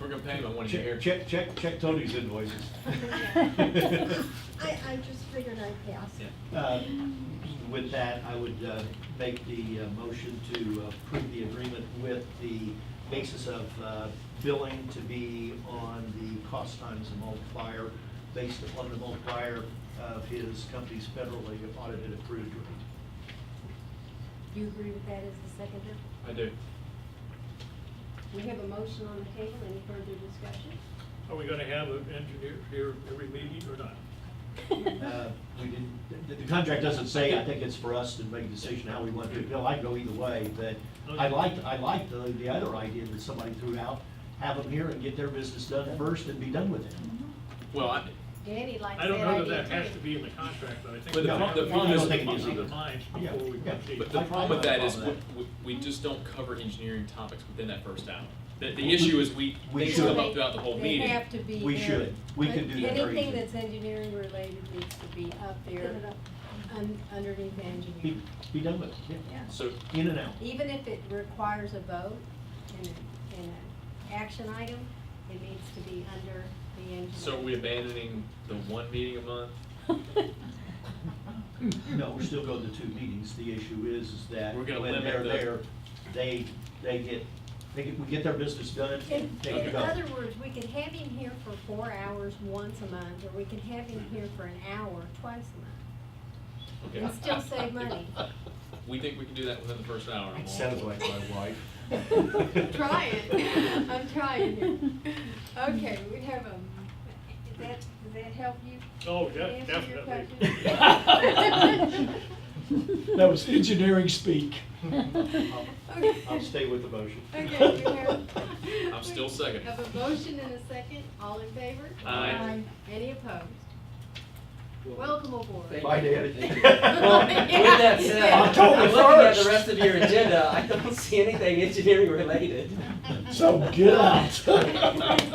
We're gonna pay him when he's here. Check, check, check, check Tony's invoices. I, I just figured I'd pass. Yeah. Uh, With that, I would uh, make the uh, motion to approve the agreement with the basis of uh, billing to be on the cost times the multiplier, based upon the multiplier of his company's federally audited approved rate. Do you agree with that as the seconder? I do. We have a motion on the table, any further discussion? Are we gonna have an engineer here every meeting or not? Uh, We didn't, the- the contract doesn't say, I think it's for us to make a decision how we want to bill. I'd go either way, but I liked, I liked the, the other idea that somebody threw out, have them here and get their business done first and be done with it. Well, I, Danny likes I that don't know that that idea has to too. be in the contract, but I think. But the we pro- have the to problem is- make up our minds Yeah, before we yeah. proceed. but the I- I problem with have a that is, problem with we, we we just don't cover engineering topics within that first hour. The, the issue is we, We things should. come up throughout the whole meeting. They have to be We there. should. We can do that very Anything easily. that's engineering related needs to be up there, Put it up. un- underneath Be, engineering. be done with it, yeah. Yeah. So, In and out. Even if it requires a vote and, a- and an action item, it needs to be under the engineering. so are we abandoning the one meeting a month? No, we're still going to two meetings. The issue is, is that We're when gonna limit they're the- there, they, they get, they get, we get their business done In, and they can in go. other words, we could have him here for four hours once a month, or we could have him here for an hour twice a Okay. month, and still save money. We think we can do that within the first hour. I'm all- Sounds like my wife. Try it. I'm trying here. Okay, we have a, does that, does that help you? Oh, yeah, answer your definitely. question? That was engineering speak. I'll- Okay. I'll stay with the motion. Okay, we have. I'm still second. Have a motion and a second, all in favor? Aye. Any opposed? Welcome aboard. Bye, David. Well, With that said, Yeah. October I'm looking at 1st. the rest of your agenda. I don't see anything engineering related. So get out. Thank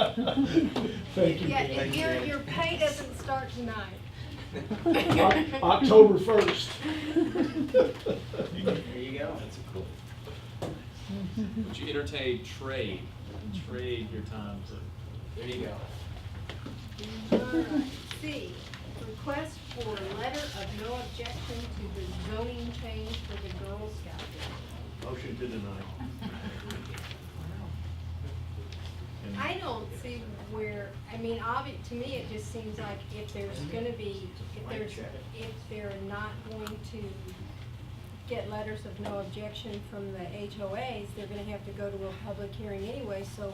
you. Yeah, Dan. if your, your pay doesn't start tonight. Oc- October first. There you go. Would you entertain trade, trade your time to There you go. Alright, C, request for a letter of no objection to the zoning change for the Girl Scout. Motion to deny. I don't see where, I mean, obvi, to me, it just seems like if there's gonna be, if there's, if they're not going to get letters of no objection from the HOAs, they're gonna have to go to a public hearing anyway, so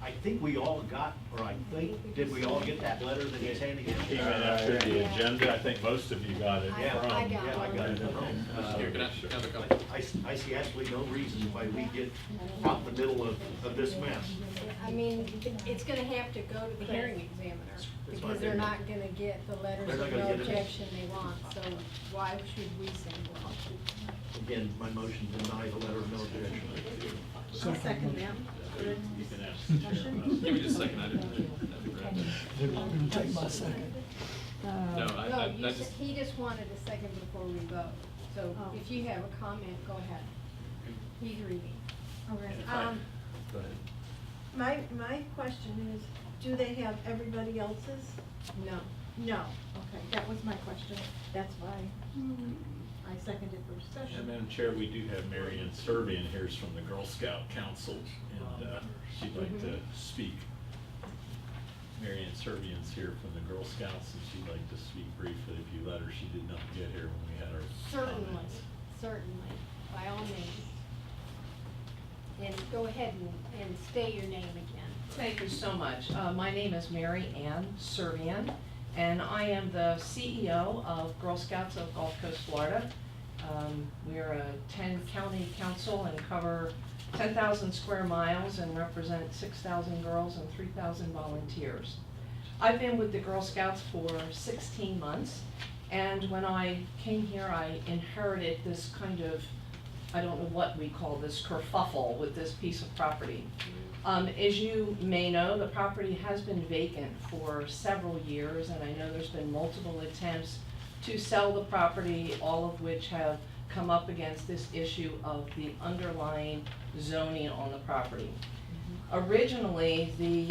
I think we all got, or I think, did we all get that letter that he's handing out? Even after the Yeah. agenda, I think most of you got it I- from. I got Yeah, I got it. Uh, Here, can I can I have a couple? I, s- I see absolutely no reason why we get out in the middle of, of this mess. I mean, it's gonna have to go to the hearing examiner, because they're not gonna get the letters They're not of gonna no get it. objection they want, so why should we send one? Again, my motion to deny the letter of no objection. I'll second that. You can ask the chair about it. Give me just a second, I didn't. They're not gonna take my second. No, I, No, I, you I said, just, he just wanted a second before we vote, so Oh. if you have a comment, go ahead. He's reading. Okay. Aye. Um, Go ahead. my, my question is, do they have everybody else's? No. No, okay, that was my question, that's why I seconded for discussion. And Madam Chair, we do have Mary Ann Serby in here is from the Girl Scout Council, and uh, she'd like to speak. Mary Ann Serbian's here from the Girl Scouts, and she'd like to speak briefly if you let her. She did not get here when we had our Certainly, comments. certainly, by all means. And go ahead and, and state your name again. Thank you so much. Uh, My name is Mary Ann Servian, and I am the CEO of Girl Scouts of Gulf Coast, Florida. Um, We are a 10-county council and cover 10,000 square miles and represent 6,000 girls and 3,000 volunteers. I've been with the Girl Scouts for 16 months, and when I came here, I inherited this kind of, I don't know what we call this kerfuffle with this piece of property. Um, as you may know, the property has been vacant for several years, and I know there's been multiple attempts to sell the property, all of which have come up against this issue of the underlying zoning on the property. Originally, the